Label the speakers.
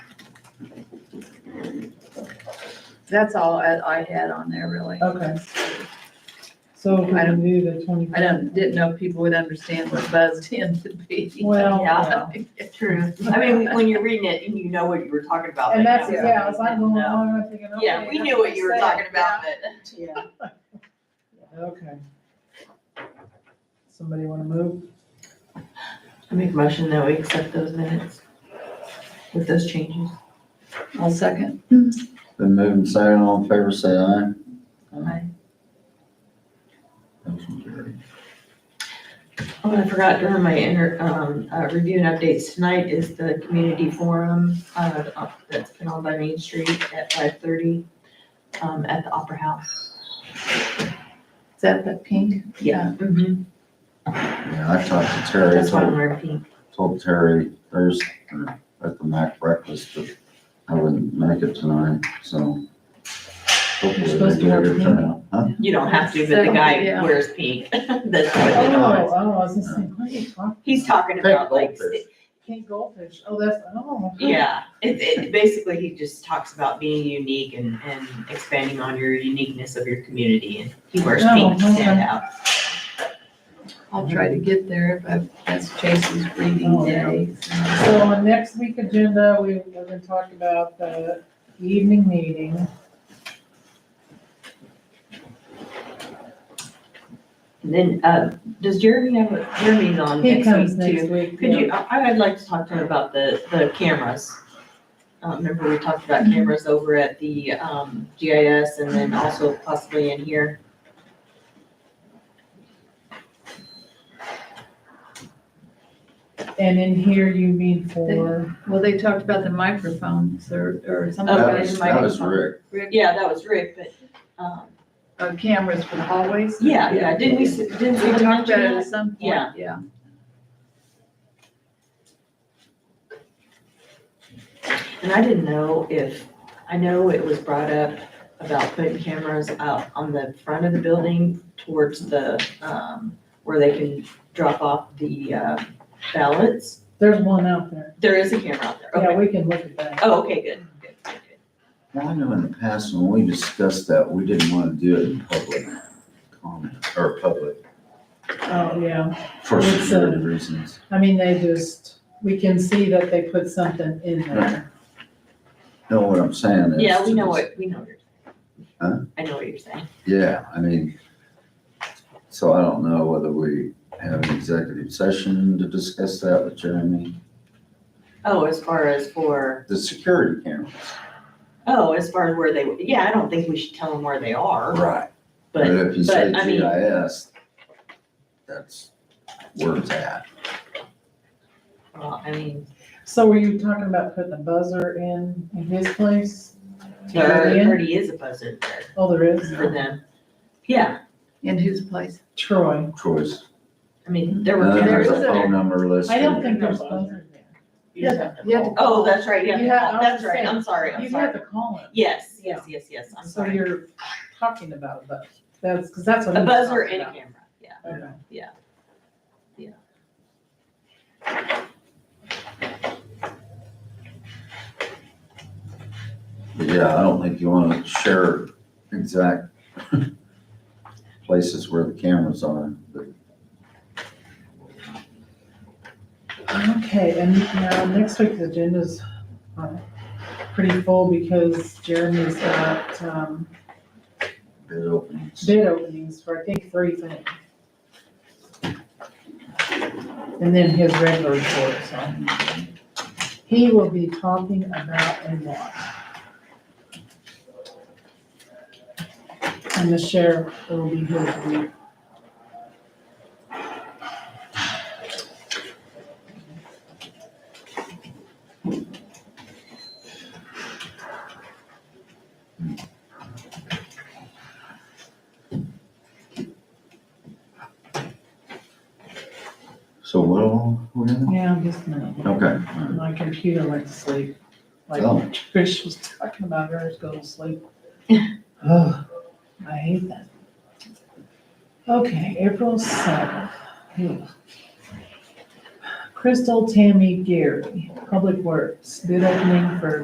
Speaker 1: That's all I, I had on there really.
Speaker 2: Okay. So if
Speaker 1: I
Speaker 2: we
Speaker 1: don't-
Speaker 2: do the twenty.
Speaker 1: I don't, didn't know if people would understand what buzzed in to be.
Speaker 2: Well,
Speaker 1: Yeah.
Speaker 3: True. I mean, when you're reading it and you know what you were talking about.
Speaker 2: And
Speaker 3: but
Speaker 2: that's,
Speaker 3: now we
Speaker 2: yeah, I was like, well,
Speaker 3: didn't know.
Speaker 2: I'm thinking, okay.
Speaker 3: Yeah, we knew what you were talking about, but.
Speaker 4: Yeah.
Speaker 2: Okay. Somebody wanna move?
Speaker 3: I make a motion that we accept those minutes with those changes.
Speaker 1: I'll second.
Speaker 5: Been moving second, all in favor, say aye.
Speaker 1: Aye.
Speaker 5: Motion carried.
Speaker 3: Oh, I forgot during my inter, um, uh, review and updates tonight is the community forum, uh, uh, that's been on by Main Street at five thirty, um, at the Opera House.
Speaker 1: Is that the pink? Yeah.
Speaker 2: Mm-hmm.
Speaker 3: Mhm.
Speaker 5: Yeah, I talked to Terry, I
Speaker 3: That's why I'm
Speaker 5: told,
Speaker 3: wearing pink.
Speaker 5: told Terry Thursday uh, at the Mac breakfast that I wouldn't make it tonight, so. Hopefully
Speaker 2: You're supposed
Speaker 5: they
Speaker 2: to
Speaker 5: get
Speaker 2: wear
Speaker 5: a good
Speaker 2: pink.
Speaker 5: turnout. Huh?
Speaker 3: You don't have to, but the guy
Speaker 1: Yeah.
Speaker 3: wears pink. That's
Speaker 2: Oh,
Speaker 3: what it was.
Speaker 2: oh, I was just thinking, what are you talking?
Speaker 3: He's talking
Speaker 5: Pink
Speaker 3: about like,
Speaker 5: goldfish.
Speaker 2: Pink goldfish, oh, that's, oh.
Speaker 3: yeah, it, it, basically he just talks about being unique and, and expanding on your uniqueness of your community and he wears
Speaker 2: Oh,
Speaker 3: pink to
Speaker 2: okay.
Speaker 3: stand out.
Speaker 1: I'll try to get there if I, that's Chase's reading
Speaker 2: Oh, yeah.
Speaker 1: day.
Speaker 2: So on next week agenda, we, we're gonna talk about the evening meeting.
Speaker 3: And then, uh, does Jeremy have, a- Jeremy's on
Speaker 2: He comes
Speaker 3: next week
Speaker 2: next
Speaker 3: too?
Speaker 2: week.
Speaker 3: Could
Speaker 2: yeah.
Speaker 3: you, I, I'd like to talk to him about the, the cameras. Uh, remember we talked about
Speaker 2: Mm-hmm.
Speaker 3: cameras over at the, um, GIS and then also possibly in here?
Speaker 2: And in here you mean for,
Speaker 1: Well, they talked about the microphones or, or something.
Speaker 3: Oh,
Speaker 5: That
Speaker 1: about
Speaker 5: was,
Speaker 1: the
Speaker 5: that was
Speaker 1: microphone.
Speaker 5: Rick.
Speaker 1: Rick,
Speaker 3: Yeah, that was Rick, but, um,
Speaker 1: uh, cameras for the hallways.
Speaker 3: yeah, yeah, didn't we, s- didn't
Speaker 1: We
Speaker 3: we
Speaker 1: talked
Speaker 3: mention
Speaker 1: about it at
Speaker 3: that?
Speaker 1: some point.
Speaker 3: Yeah.
Speaker 1: Yeah.
Speaker 3: And I didn't know if, I know it was brought up about putting cameras out on the front of the building towards the, um, where they can drop off the, uh, ballots.
Speaker 2: there's one out there.
Speaker 3: There is a camera out there,
Speaker 2: Yeah,
Speaker 3: okay.
Speaker 2: we can look at that.
Speaker 3: Oh, okay, good, good, good, good.
Speaker 5: Now, I know in the past when we discussed that, we didn't want to do it in public comment, or public,
Speaker 2: Oh, yeah.
Speaker 5: for
Speaker 2: It's, uh,
Speaker 5: security reasons.
Speaker 2: I mean, they just, we can see that they put something in there.
Speaker 5: Know what I'm saying? is
Speaker 3: Yeah, we
Speaker 5: to
Speaker 3: know
Speaker 5: just-
Speaker 3: what, we know what you're
Speaker 5: Huh?
Speaker 3: saying. I know what you're saying.
Speaker 5: Yeah, I mean, so I don't know whether we have an executive session to discuss that with Jeremy.
Speaker 3: Oh, as far as for,
Speaker 5: The security cameras.
Speaker 3: oh, as far as where they, yeah, I don't think we should tell them where they are,
Speaker 5: Right. But
Speaker 3: but,
Speaker 5: if you say
Speaker 3: I mean-
Speaker 5: GIS, that's where it's at.
Speaker 3: well, I mean,
Speaker 2: So were you talking about putting a buzzer in, in his place?
Speaker 3: there
Speaker 2: Yeah.
Speaker 3: already is a buzzer there
Speaker 2: Oh, there is?
Speaker 3: for them. Yeah,
Speaker 1: In whose place?
Speaker 2: Troy.
Speaker 5: Choice.
Speaker 3: I mean, there
Speaker 5: And
Speaker 3: were
Speaker 5: then
Speaker 1: There
Speaker 5: there's
Speaker 1: is
Speaker 3: cameras.
Speaker 5: a
Speaker 1: a-
Speaker 5: phone number listed.
Speaker 2: I don't think there's a buzzer there.
Speaker 1: You just
Speaker 3: Yeah.
Speaker 1: You have to
Speaker 3: Oh, that's right,
Speaker 2: You
Speaker 3: yeah,
Speaker 2: have- I was
Speaker 3: that's
Speaker 2: gonna
Speaker 3: right,
Speaker 2: say,
Speaker 3: I'm sorry, I'm
Speaker 2: You have
Speaker 3: sorry.
Speaker 2: to call him.
Speaker 3: Yes, yes, yes, yes, I'm
Speaker 2: So
Speaker 3: sorry.
Speaker 2: you're talking about a buzzer. That's, because that's what.
Speaker 3: A
Speaker 2: he's
Speaker 3: buzzer
Speaker 2: talking
Speaker 3: and a
Speaker 2: about.
Speaker 3: camera, yeah.
Speaker 2: Okay.
Speaker 5: But yeah, I don't think you wanna share exact places where the cameras are, but
Speaker 2: Okay, and now next week's agenda's uh, pretty full because Jeremy's got um,
Speaker 5: bid openings.
Speaker 2: bid openings for, I think, three things. And then his regular report, so he will be talking about a lot. And the sheriff will be here to read.
Speaker 5: So what all we have?
Speaker 2: Yeah, just a minute.
Speaker 5: Okay.
Speaker 2: My computer went to sleep. Like
Speaker 5: Oh.
Speaker 2: Trish was talking about hers go to sleep. Ugh, I hate that. Okay, April seventh. Crystal Tammy Gary, Public Works, bid opening for